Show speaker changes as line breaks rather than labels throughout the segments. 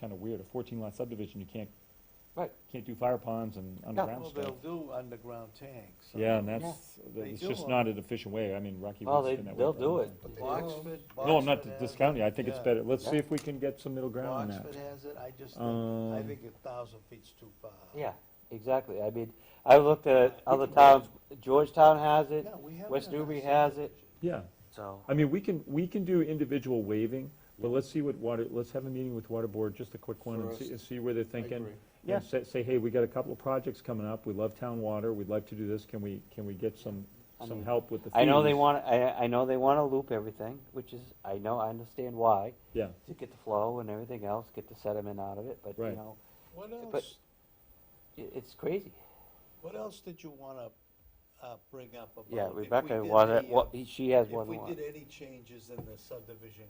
kind of weird, a fourteen lot subdivision, you can't,
Right.
can't do fire ponds and underground
Well,
stuff.
they'll do underground tanks. I
Yeah, and
mean,
that's, that-
They
it's
do
just
all
not
that.
an efficient way, I mean, Rocky
Well,
Woods.
they,
been that way
they'll
for a
do
long
it.
time.
Oxford,
No, I'm not
Boxford has
discounting, it. I think it's
yeah.
better, let's see
Yeah.
if we can get some middle ground on that.
Oxford has it, I just think, I
Um,
think a thousand feet's too far.
Yeah, exactly. I mean, I've looked at other
can do
towns, Georgetown has it,
Yeah, we have
West
it in our
Newbury has it,
subdivision.
Yeah,
so.
I mean, we can, we can do individual waiving, but let's see what water, let's have a meeting with water board, just a quick one, and see,
First.
and see where they're
I
thinking.
agree.
Yeah.
And say, say, hey, we got a couple of projects coming up, we love town water, we'd like to do this, can we, can we get some,
I
some
mean,
help with the fees?
I know they want, I, I know they wanna loop everything, which is, I know, I understand why,
Yeah,
to get the flow and everything else, get the sediment out of it, but
Right.
you know,
What
But-
else,
i it's crazy.
what else did you wanna, uh, bring up about?
Yeah,
if we
Rebecca
did
wanted,
any, uh,
what, she has
If
one
we
more.
did any changes in the subdivision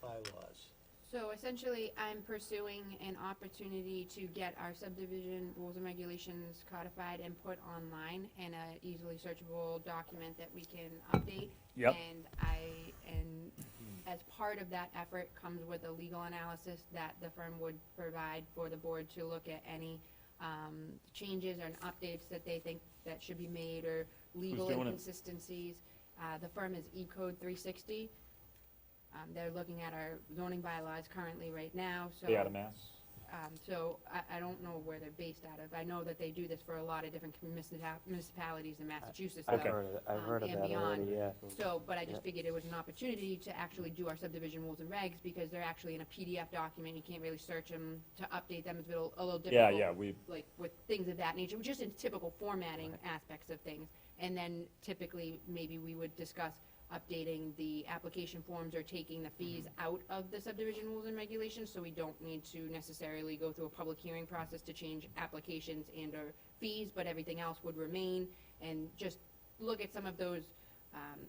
bylaws.
So essentially, I'm pursuing an opportunity to get our subdivision rules and regulations codified and put online in a easily searchable document that we can update.
Yep.
And I, and as part of that effort comes with a legal analysis that the firm would provide for the board to look at any, um, changes or updates that they think that should be made or legal
doing it?
inconsistencies. Uh, the firm is Ecode three sixty. Um, they're looking at our zoning bylaws currently right now, so.
they out of mass.
Um, so I, I don't know where they're based out of. I know that they do this for a lot of different municipal- municipalities in Massachusetts,
I've
though.
heard of, it- I've
um,
heard of
and
that
beyond.
already, yeah.
So, but I
Yep.
just figured it was an opportunity to actually do our subdivision rules and regs, because they're actually in a PDF document. You can't really search them to update them. It's a little, a little
Yeah,
difficult
yeah, we,
like with things of that nature, just in typical formatting aspects of things. And then typically, maybe we would discuss updating the application forms or taking the fees out of the subdivision rules and regulations, so we don't need to necessarily go through a public hearing process to change applications and or fees, but everything else would remain, and just look at some of those, um,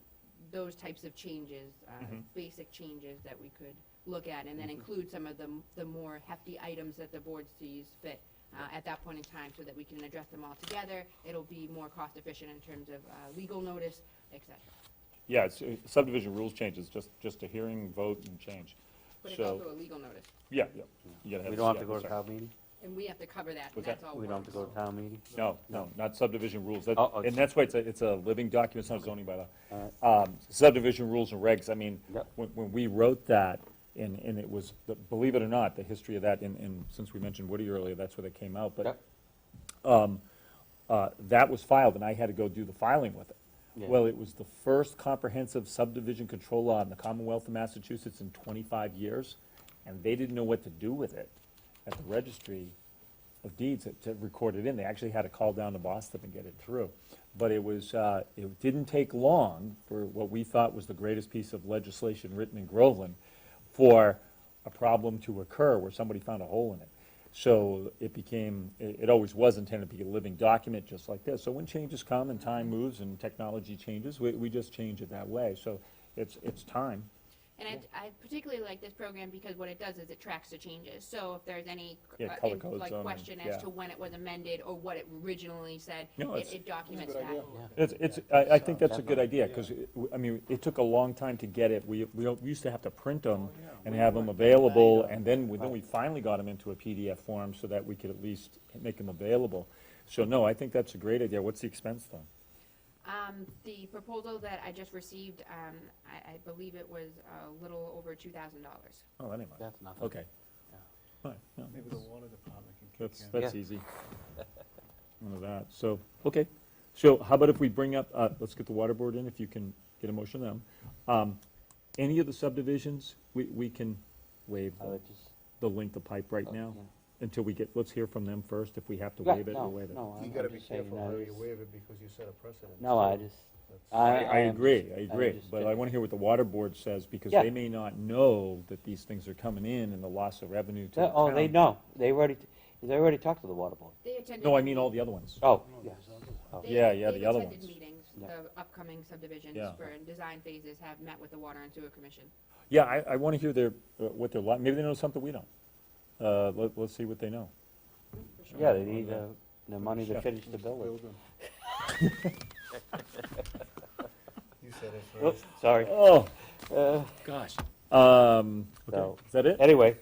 those types of changes, uh,
Mm-hmm.
basic changes that we could look at, and then include some of the, m- the more hefty items that the board sees fit uh, at that point in time so that we can address them all together. It'll be more cost efficient in terms of uh, legal notice, et cetera.
yeah, it's, uh, subdivision rules changes, just, just a hearing, vote, and change.
But it's
So,
also a legal notice,
yeah, yeah. you gotta
We don't have
yeah,
to go to
sorry.
town meeting?
and we have to cover that, and
What's
that's
that?
Oh,
all
We don't have to go
works.
to town meeting?
No, no, not subdivision rules, that,
Oh, oh,
and that's why it's a, it's a living document, it's not a zoning bylaw.
Alright.
Um, subdivision rules and regs, I mean,
Yep.
when, when we wrote that, and, and it was, the- believe it or not, the history of that, and, and since we mentioned Woody earlier, that's where they came out, but
Yep.
uh, that was filed, and I had to go do the filing with it.
Yeah.
Well, it was the first comprehensive subdivision control law in the Commonwealth of Massachusetts in 25 years, and they didn't know what to do with it at the registry of deeds to- to record it in. They actually had to call down to Boston and get it through. But it was, uh, it didn't take long for what we thought was the greatest piece of legislation written in Groveland for a problem to occur where somebody found a hole in it. So it became, it, it always was intended to be a living document, just like this. So when changes come and time moves and technology changes, we, we just change it that way. So it's, it's time.
And I, I particularly like this program because what it does is it tracks the changes. So if there's any,
Yeah,
uh,
color
in-
codes on
like,
and-
question
yeah.
as to when it was amended or what it originally said,
No,
it
it's-
it documents
Good
that.
idea.
It's, it's, I, I think that's a good idea, because, I mean, it took a long time to get it. We, we don't- we used to have to print them and have them available, and then, we- then we finally got them into a PDF form so that we could at least make them available. So no, I think that's a great idea. What's the expense though?
Um, the proposal that I just received, um, I, I believe it was a little over two thousand dollars.
Oh, anyway,
That's nothing.
okay. Fine, no,
Maybe the water department can kick
That's,
in.
that's
Yeah.
easy. None of that, so, okay. So how about if we bring up, uh, let's get the water board in, if you can get a motion on them. Um, Any of the subdivisions, we, we can waive
I
them.
would just.
the length of pipe right now,
yeah.
until we get, let's hear from them first, if we have to
Yeah,
waive it,
no,
we'll waive it.
no,
You
I'm-
gotta
I'm
be
just saying
careful
that
how
is-
you waive it because you set a precedent.
No, I
too.
just,
That's-
I.
I, I
am
agree,
just-
I
am
agree,
just
but
ju-
I wanna hear what the water board says, because
Yeah.
they may not know that these things are coming in and the loss of revenue to the
Yeah, Oh, they
town.
know, they already, they already talked to the water board.
They attended.
No, I mean all the other ones.
Oh,
No,
yeah,
there's other ones.
Oh.
They-
Yeah, yeah,
they've
the other
attended
ones.
meetings,
Yeah.
the upcoming subdivisions
Yeah.
for design phases have met with the Water and Sewer Commission.
Yeah, I, I wanna hear their, uh, what their, li- maybe they know something we don't. Uh, let, let's see what they know.
yeah, they need uh, the money to
Yeah.
finish the building.
Building.
You said it first.
Oops, sorry.
Oh,
Uh,
um, okay,
So-
is that it?
Anyway,